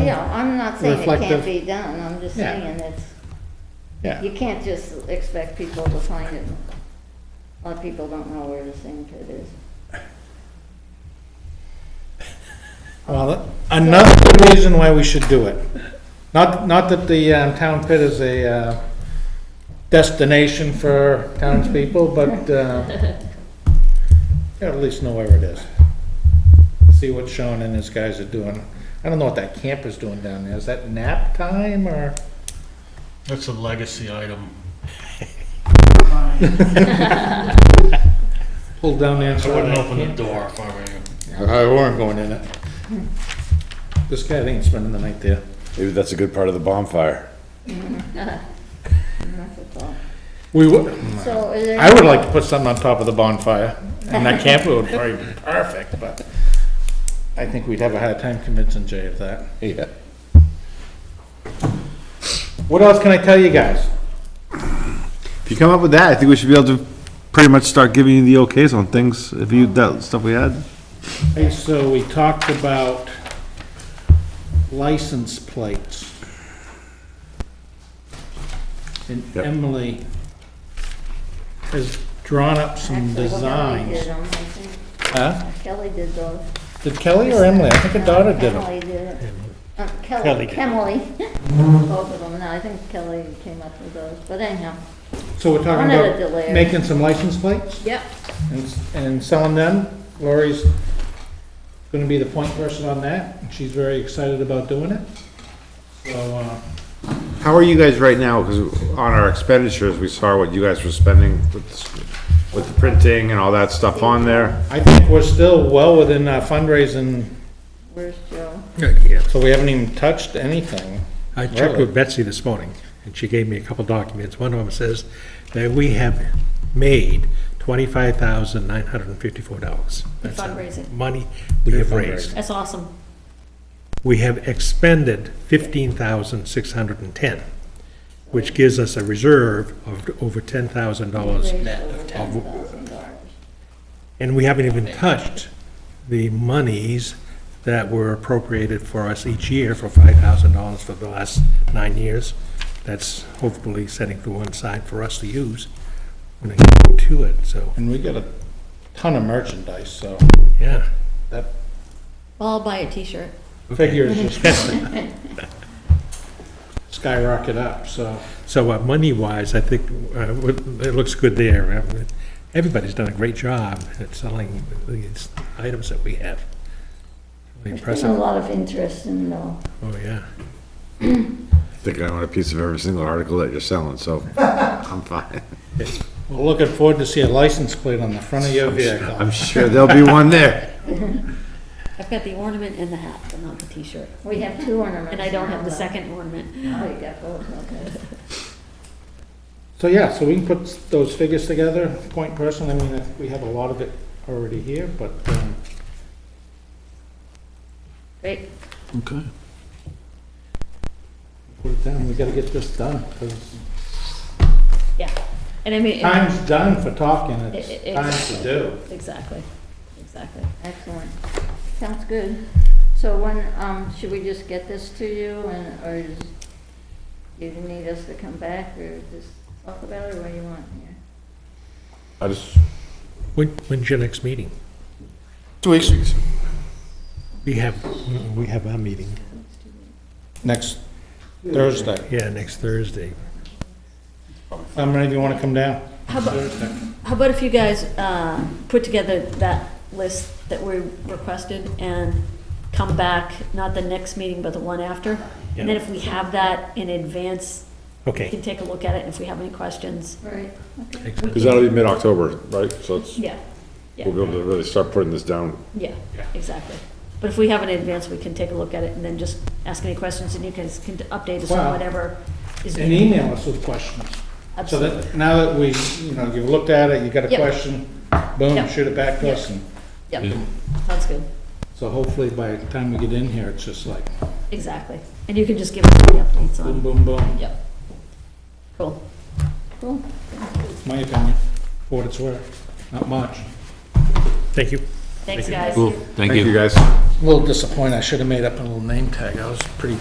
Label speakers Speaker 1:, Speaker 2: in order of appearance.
Speaker 1: You know, I'm not saying it can't
Speaker 2: Reflective.
Speaker 1: be done, I'm just
Speaker 2: Yeah.
Speaker 1: saying it's, you
Speaker 2: Yeah,
Speaker 1: can't just expect people to find it. A lot of people don't know where the sand pit is.
Speaker 2: well, another reason why we should do it. Not, not that the um, town pit is a uh, destination for townspeople, but uh, you at least know where it is. See what Sean and his guys are doing. I don't know what that camper's doing down there. Is that nap time or?
Speaker 3: That's a legacy item.
Speaker 2: Pull down there. and
Speaker 3: I wouldn't open the
Speaker 2: camp?
Speaker 3: door if I were you.
Speaker 2: I weren't going in it. This guy, I think, is spending the night there.
Speaker 4: Maybe that's a good part of the bonfire.
Speaker 1: And that's a thought.
Speaker 2: We were,
Speaker 1: So is there?
Speaker 2: I would like to put something on top of the bonfire, and that camper would probably be perfect, but I think we'd have a hard time convincing Jay of that.
Speaker 4: Yeah.
Speaker 2: What else can I tell you guys?
Speaker 4: If you come up with that, I think we should be able to pretty much start giving you the okays on things, if you, that stuff we had.
Speaker 2: Okay, so we talked about license plates. And
Speaker 4: Yep.
Speaker 2: Emily has drawn up some
Speaker 1: actually, well, Kelly did
Speaker 2: designs.
Speaker 1: them, I think. uh,
Speaker 2: Huh?
Speaker 1: Kelly did those.
Speaker 2: Did Kelly or Emily? I think her daughter did them.
Speaker 1: Emily did it. Uh,
Speaker 2: Kelly
Speaker 1: Kelly,
Speaker 2: did.
Speaker 1: Emily, both of them, no, I think Kelly came up with those, but anyhow.
Speaker 2: So we're talking
Speaker 1: One at a delay.
Speaker 2: about making some license plates?
Speaker 1: Yep.
Speaker 2: and, and selling them. Lori's gonna be the point person on that, and she's very excited about doing it. So, uh,
Speaker 4: How are you guys right now? Because on our expenditures, we saw what you guys were spending with, the- with the printing and all that stuff on there.
Speaker 2: I think we're still well within our fundraising,
Speaker 1: Where's Joe?
Speaker 2: so we haven't even touched anything.
Speaker 5: I checked
Speaker 2: Really?
Speaker 5: with Betsy this morning, and she gave me a couple documents. One of them says that we have made twenty-five thousand nine hundred and fifty-four dollars. That's the
Speaker 6: fundraising.
Speaker 5: Money we have raised.
Speaker 6: That's awesome.
Speaker 5: We have expended fifteen thousand six hundred and ten, which gives us a reserve of over ten thousand dollars.
Speaker 1: Ten thousand dollars.
Speaker 5: And we haven't even touched the monies that were appropriated for us each year for five thousand dollars for the last nine years. That's hopefully setting to one side for us to use when it comes to it, so,
Speaker 2: And we got a ton of merchandise, so
Speaker 5: yeah.
Speaker 2: that
Speaker 6: Well, I'll buy a t-shirt.
Speaker 2: figure is just gonna skyrocket up, so.
Speaker 5: So uh, money-wise, I think uh, what- it looks good there. Uh, Everybody's done a great job at selling these items that we have. Really
Speaker 1: There's been a
Speaker 5: Impressive,
Speaker 1: lot of interest in though.
Speaker 5: oh, yeah.
Speaker 4: I think I own a piece of every single article that you're selling, so I'm fine.
Speaker 2: We're looking forward to see a license plate on the front of your vehicle.
Speaker 4: I'm sure there'll be one there.
Speaker 6: I've got the ornament and the hat, but not the t-shirt.
Speaker 1: We have two ornaments.
Speaker 6: And I don't have
Speaker 1: now,
Speaker 6: the
Speaker 1: though.
Speaker 6: second ornament.
Speaker 1: Oh, you got both, okay.
Speaker 2: So, yeah, so we can put those figures together, point person, I mean, I think we have a lot of it already here, but, um,
Speaker 1: Great.
Speaker 4: Okay.
Speaker 2: put it down, we gotta get this done, because
Speaker 6: Yeah. And I mean, it-
Speaker 2: time's done for talking,
Speaker 6: It-
Speaker 2: it's
Speaker 6: it-
Speaker 2: time to do.
Speaker 6: exactly, exactly.
Speaker 1: Excellent. Sounds good. So when, um, should we just get this to you and, or is, you need us to come back or just talk about it or what do you want here?
Speaker 4: I just.
Speaker 5: When, when's your next meeting?
Speaker 4: Two weeks.
Speaker 5: We have, we have our meeting,
Speaker 2: Next Thursday.
Speaker 5: yeah, next Thursday.
Speaker 2: I'm ready, you wanna come down?
Speaker 6: How about, how about if you guys, uh, put together that list that we requested and come back, not the next meeting, but the one after? And then if we have that in advance, we
Speaker 5: Okay.
Speaker 6: can take a look at it, and if we have any questions,
Speaker 1: Right.
Speaker 4: Because that'll be mid-October, right? So it's,
Speaker 6: yeah, yeah.
Speaker 4: we'll be able to really start putting this down
Speaker 6: Yeah, exactly. But if we have it in advance, we can take a look at it and then just ask any questions and you guys can update us
Speaker 2: Wow.
Speaker 6: on whatever is
Speaker 2: And
Speaker 6: needed.
Speaker 2: email us with questions. So
Speaker 6: Absolutely.
Speaker 2: that, now that we, you know, you've looked at it, you got a
Speaker 6: Yep.
Speaker 2: question, boom,
Speaker 6: Yep.
Speaker 2: shoot it back to us. and
Speaker 6: Yep, sounds good.
Speaker 2: So hopefully by the time we get in here, it's just like
Speaker 6: Exactly. And you can just give us the updates
Speaker 2: boom,
Speaker 6: on,
Speaker 2: boom, boom,
Speaker 6: yep. Cool.
Speaker 1: Cool.
Speaker 2: my opinion, for what it's worth, not much.
Speaker 5: Thank you.
Speaker 6: Thanks, guys.
Speaker 7: Cool, thank you.
Speaker 4: guys.
Speaker 2: A little disappointed, I should have made up a little name tag, I was pretty